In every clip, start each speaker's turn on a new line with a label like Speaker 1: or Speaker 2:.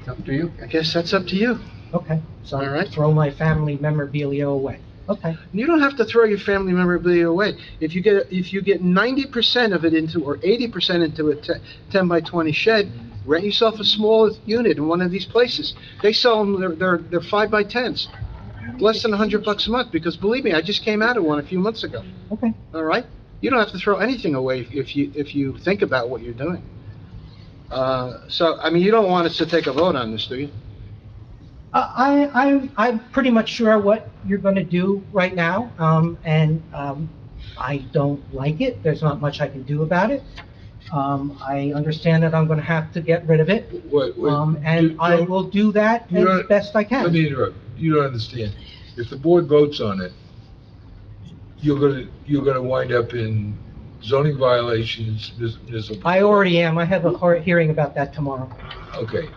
Speaker 1: It's up to you.
Speaker 2: I guess that's up to you.
Speaker 3: Okay,
Speaker 2: All
Speaker 3: so
Speaker 2: right.
Speaker 3: throw my family memorabilia away. Okay,
Speaker 2: You don't have to throw your family memorabilia away. If you get, if you get ninety percent of it into, or eighty percent into a te- ten by twenty shed, rent yourself a small unit in one of these places. They sell them, they're, they're, they're five by tens, less than a hundred bucks a month, because believe me, I just came out of one a few months ago,
Speaker 3: okay.
Speaker 2: all right? You don't have to throw anything away if- if you, if you think about what you're doing. Uh, so, I mean, you don't want us to take a vote on this, do you?
Speaker 3: Uh, I, I, I'm- I'm pretty much sure what you're going to do right now, um, and um, I don't like it. There's not much I can do about it. Um, I understand that I'm going to have to get rid of it,
Speaker 4: Wait, wait.
Speaker 3: um, and
Speaker 4: You
Speaker 3: I
Speaker 4: don't-
Speaker 3: will do that
Speaker 4: you
Speaker 3: as
Speaker 4: don't-
Speaker 3: best I
Speaker 4: Let me
Speaker 3: can.
Speaker 4: interrupt. You don't understand. If the board votes on it, you're gonna, you're gonna wind up in zoning violations, mis- municipal.
Speaker 3: I already am. I have a hor- hearing about that tomorrow.
Speaker 4: Okay.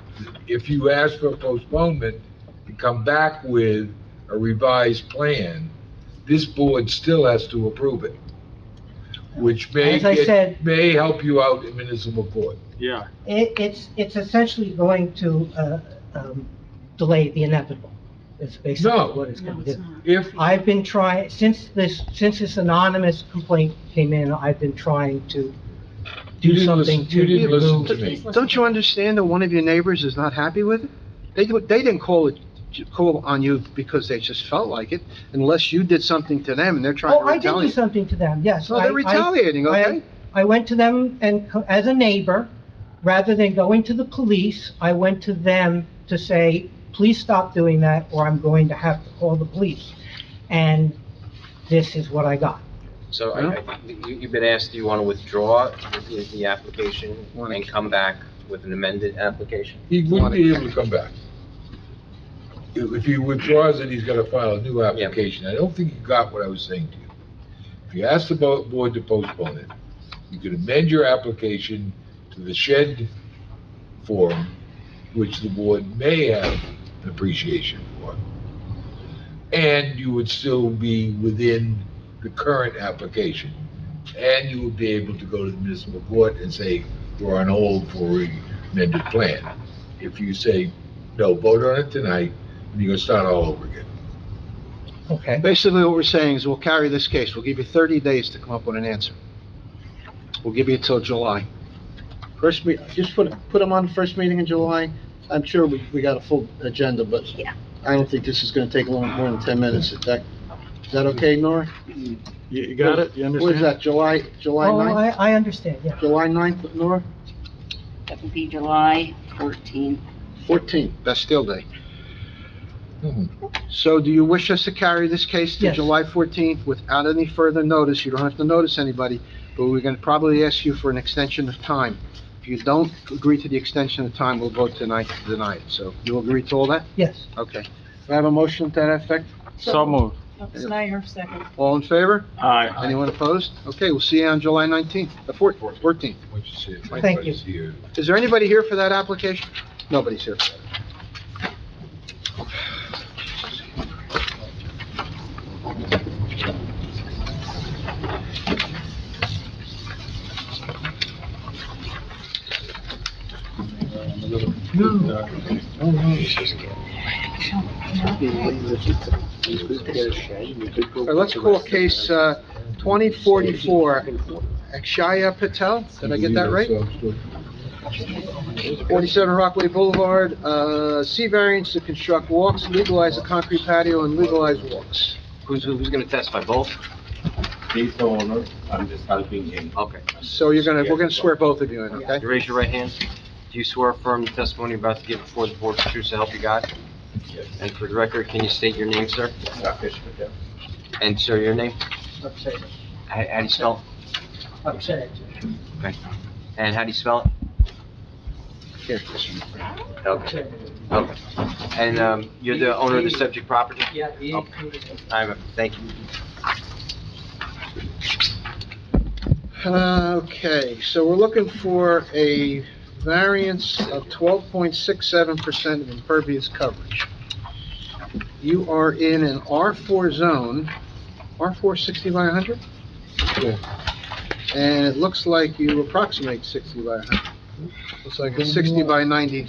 Speaker 4: If you ask for postponement and come back with a revised plan, this board still has to approve it, which may,
Speaker 3: As I
Speaker 4: get-
Speaker 3: said-
Speaker 4: may help you out in municipal court.
Speaker 1: Yeah.
Speaker 3: It, it's, it's essentially going to, uh, um, delay the inevitable, is
Speaker 4: No.
Speaker 3: basically what it's gonna
Speaker 5: No, it's
Speaker 3: do.
Speaker 5: not.
Speaker 4: If,
Speaker 3: I've been trying, since this, since this anonymous complaint came in, I've been trying to
Speaker 4: You
Speaker 3: do
Speaker 4: didn't
Speaker 3: something
Speaker 4: listen-
Speaker 3: to
Speaker 4: you didn't listen
Speaker 3: remove.
Speaker 4: to me.
Speaker 2: Don't you understand that one of your neighbors is not happy with it? They, they didn't call it, call on you because they just felt like it, unless you did something to them and they're trying
Speaker 3: Oh,
Speaker 2: to
Speaker 3: I did do
Speaker 2: retaliate.
Speaker 3: something to them, yes.
Speaker 2: So they're
Speaker 3: I- I-
Speaker 2: retaliating,
Speaker 3: I-
Speaker 2: okay?
Speaker 3: I went to them and, co- as a neighbor, rather than going to the police, I went to them to say, please stop doing that, or I'm going to have to call the police. And this is what I got.
Speaker 6: So I, I, you, you've been asked, do you want to withdraw the, the application
Speaker 2: Wanna-
Speaker 6: and come back with an amended application?
Speaker 4: he wouldn't be able to come back. If if he withdraws it, he's gotta file a new application. I don't think you got what I was saying to you. If you ask the bo- board to postpone it, you could amend your application to the shed form, which the board may have an appreciation for. And you would still be within the current application. And you would be able to go to the municipal court and say, we're on hold for an amended plan. If you say, no, vote on it tonight, and you're gonna start all over again.
Speaker 3: Okay.
Speaker 2: Basically, what we're saying is we'll carry this case. We'll give you 30 days to come up with an answer. We'll give you till July. First me, just put, put them on the first meeting in July. I'm sure we, we got a full agenda, but I don't think this is gonna take long, more than 10 minutes. Is that, is that okay, Nora?
Speaker 1: You you got it? You
Speaker 2: What is
Speaker 1: understand?
Speaker 2: that, July, July
Speaker 3: Oh,
Speaker 2: 9th?
Speaker 3: I, I understand, yeah.
Speaker 2: July 9th, Nora?
Speaker 5: That would be July 14th.
Speaker 2: 14th, Bastille Day.
Speaker 4: Mhm.
Speaker 2: So do you wish us to carry this case to
Speaker 3: Yes.
Speaker 2: July 14th without any further notice? You don't have to notice anybody, but we're going to probably ask you for an extension of time. If you don't agree to the extension of time, we'll vote tonight to deny it. So you agree to all that?
Speaker 3: Yes.
Speaker 2: Okay. Do I have a motion to that effect?
Speaker 1: So moved.
Speaker 5: Snyder, second.
Speaker 2: All in favor?
Speaker 1: Aye.
Speaker 2: Anyone opposed? Okay, we'll see you on July 19th, the 14th, 14th.
Speaker 4: What you said,
Speaker 3: Thank you.
Speaker 4: everybody's here.
Speaker 2: Is there anybody here for that application? Nobody's here. All right, let's call case uh, 2044, Akshaya Patel, did I get that right? 47 Rockaway Boulevard, uh, C variance to construct walks, legalize a concrete patio, and legalize walks.
Speaker 6: Who's, who's gonna testify, both?
Speaker 7: He's the owner, I'm just helping him.
Speaker 6: Okay.
Speaker 2: So you're gonna, we're gonna swear both of you in, okay?
Speaker 6: You Raise your right hand. Do you swear affirm the testimony you're about to give before the board is the truth to help you God?
Speaker 7: Yes.
Speaker 6: And for the record, can you state your name, sir?
Speaker 7: Rakesh Patel.
Speaker 6: And sir, your name?
Speaker 3: Upset,
Speaker 6: How, how do you spell
Speaker 3: upset.
Speaker 6: it? And how do you spell it?
Speaker 2: Here.
Speaker 6: Okay, okay. And, um, you're the owner of the subject property?
Speaker 3: Yeah,
Speaker 6: I, thank you.
Speaker 2: Uh, Okay, so we're looking for a variance of 12.67% of impervious coverage. You are in an R4 zone, R4 60 by 100?
Speaker 4: Yeah.
Speaker 2: And it looks like you approximate 60 by 100. Looks like a 60 by 90